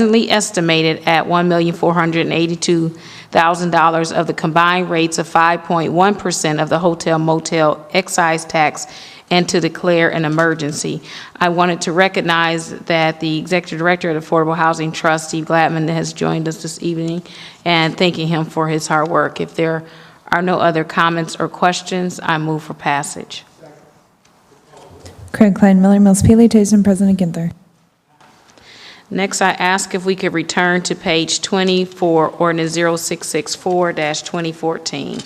presently estimated at $1,482,000 of the combined rates of 5.1% of the hotel motel excise tax and to declare an emergency. I wanted to recognize that the Executive Director of the Affordable Housing Trust, Steve Gladman, has joined us this evening, and thanking him for his hard work. If there are no other comments or questions, I move for passage. Craig Klein, Miller, Mills, Paley, Tyson, President Ginther. Next, I ask if we could return to page 20 for ordinance 0664-2014.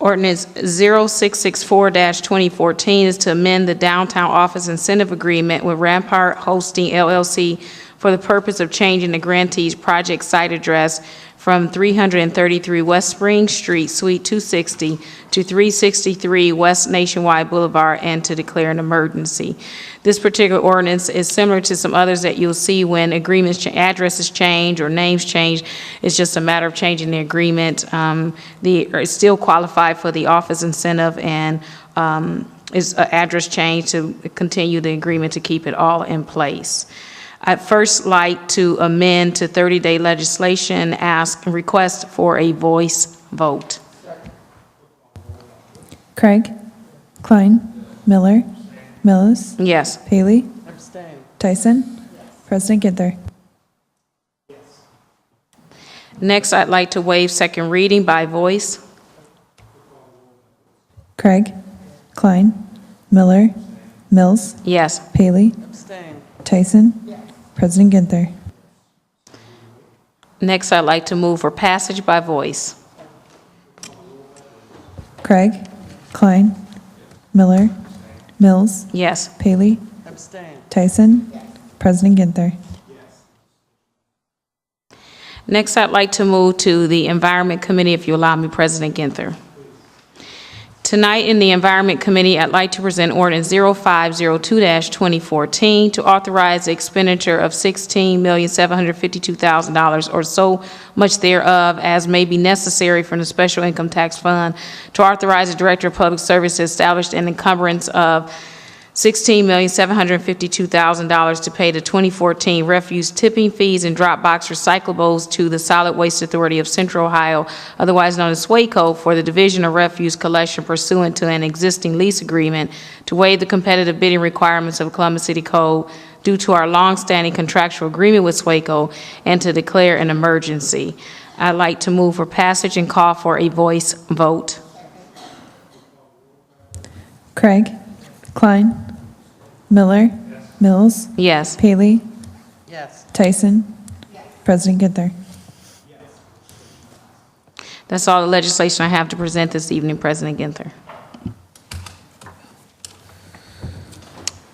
Ordinance 0664-2014 is to amend the Downtown Office Incentive Agreement with Rampart Hosting LLC for the purpose of changing the grantee's project site address from 333 West Spring Street, Suite 260, to 363 West Nationwide Boulevard, and to declare an emergency. This particular ordinance is similar to some others that you'll see when agreements, cha- addresses change or names change. It's just a matter of changing the agreement. Um, The, or it's still qualified for the office incentive and um, is an address change to continue the agreement to keep it all in place. I'd first like to amend to 30-day legislation, ask, request for a voice vote. Craig, Klein, Miller, Mills, Yes. Paley. Tyson, President Ginther. Next, I'd like to waive second reading by voice. Craig, Klein, Miller, Mills, Yes. Paley. Tyson, President Ginther. Next, I'd like to move for passage by voice. Craig, Klein, Miller, Mills, Yes. Paley. Tyson, President Ginther. Next, I'd like to move to the Environment Committee, if you allow me, President Ginther. Tonight, in the Environment Committee, I'd like to present ordinance 0502-2014 to authorize the expenditure of $16,752,000 or so much thereof as may be necessary from the Special Income Tax Fund to authorize the Director of Public Service to establish an encumbrance of $16,752,000 to pay the 2014 refuse tipping fees and drop box recyclables to the Solid Waste Authority of Central Ohio, otherwise known as SWACO, for the division of refuse collection pursuant to an existing lease agreement to waive the competitive bidding requirements of Columbus City Code due to our longstanding contractual agreement with SWACO and to declare an emergency. I'd like to move for passage and call for a voice vote. Craig, Klein, Miller, Mills, Yes. Paley, Yes. Tyson, President Ginther. That's all the legislation I have to present this evening, President Ginther.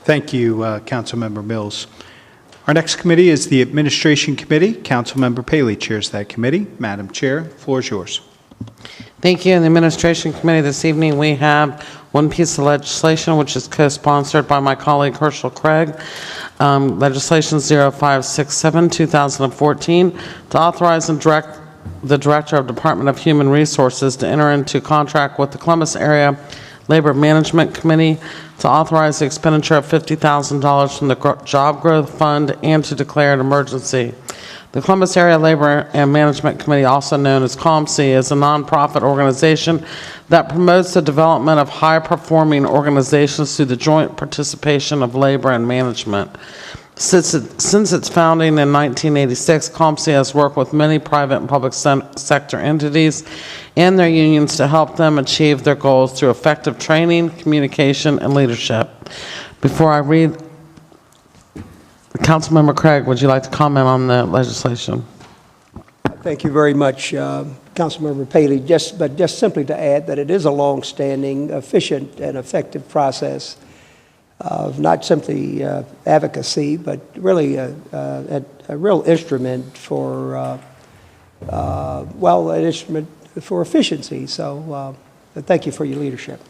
Thank you, uh, Councilmember Mills. Our next committee is the Administration Committee. Councilmember Paley chairs that committee. Madam Chair, floor is yours. Thank you. In the Administration Committee this evening, we have one piece of legislation, which is co-sponsored by my colleague Herschel Craig, um, Legislation 0567, 2014, to authorize and direct the Director of Department of Human Resources to enter into contract with the Columbus Area Labor Management Committee to authorize the expenditure of $50,000 from the Gro- Job Growth Fund and to declare an emergency. The Columbus Area Labor and Management Committee, also known as COMC, is a nonprofit organization that promotes the development of high-performing organizations through the joint participation of labor and management. Since, it, since its founding in 1986, COMC has worked with many private and public sen- sector entities and their unions to help them achieve their goals through effective training, communication, and leadership. Before I read Councilmember Craig, would you like to comment on the legislation? Thank you very much, uh, Councilmember Paley. Just, but just simply to add that it is a long-standing, efficient, and effective process of not simply uh, advocacy, but really a, a, a real instrument for, uh, uh, well, an instrument for efficiency. So uh, thank you for your leadership.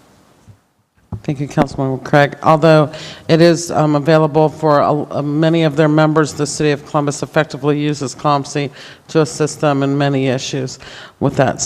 Thank you, Councilmember Craig. Although it is um, available for uh, many of their members, the City of Columbus effectively uses COMSI to assist them in many issues. With that